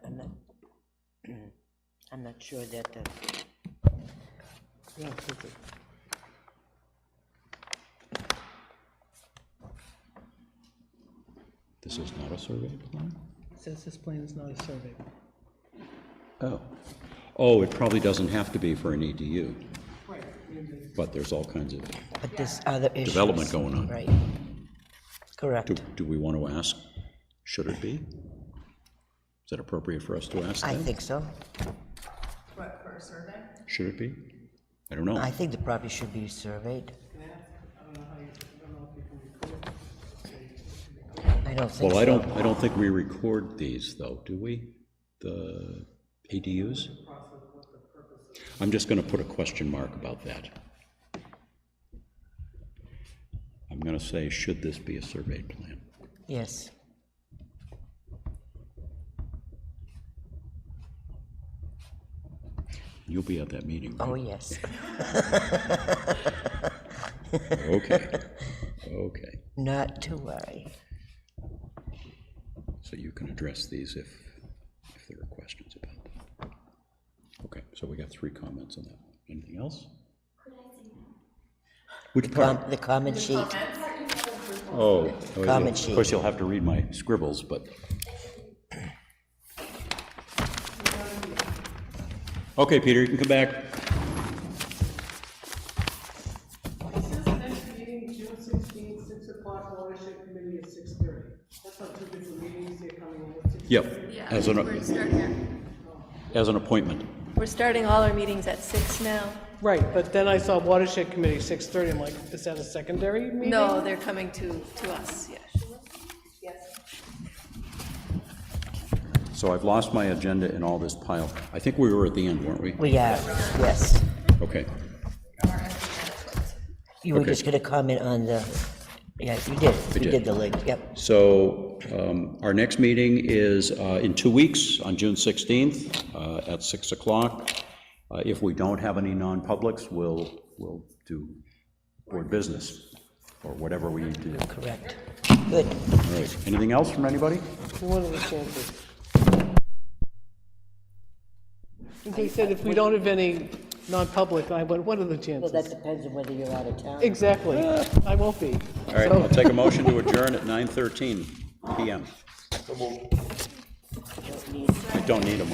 I'm not sure that uh, the, yes, it is. This is not a survey plan? Says this plan is not a survey. Oh. Oh, it probably doesn't have to be for an EDU, Right. but there's all kinds of, but there's other issues. Development going on. Right. Correct. do, do we want to ask, should it be? Is that appropriate for us to ask I that? think so. What, for a survey? Should it be? I don't know. I think the property should be surveyed. I don't think so. Well, I don't, I don't think we record these, though, do we? The ADUs? I'm just going to put a question mark about that. I'm going to say, should this be a survey plan? Yes. You'll be at that meeting, right? Oh, yes. Okay, okay. Not to worry. So you can address these if, if there are questions about them. Okay, so we got three comments on that. Anything else? Which part? Com- The comment sheet, Oh. oh, yeah. Comment sheet. Of course, you'll have to read my scribbles, but. Okay, Peter, you can come back. It says next meeting, June sixteenth, six o'clock, watershed committee at six thirty. That's not two different meetings, they're coming in at six. Yep. Yeah, As we're an, starting, as an appointment. we're starting all our meetings at six now. Right, but then I saw watershed committee six thirty, I'm like, is that a secondary meeting? No, they're coming to, to us, yes. So I've lost my agenda in all this pile. I think we were at the end, weren't we? we are, yes. Okay. You were Okay. just going to comment on the, yeah, you did. You did. did the link, yep. So um, our next meeting is uh, in two weeks, on June 16th, uh, at 6 o'clock. Uh, If we don't have any non-publics, we'll, we'll do board business, or whatever we need to do. Correct. Good. All right. Anything else from anybody? One of the chances. They said if we don't have any non-public, I went, what are the Well, chances? that depends on whether you're out of town. Exactly, I won't be. All right, I'll take a motion to adjourn at 9:13 PM. I don't need a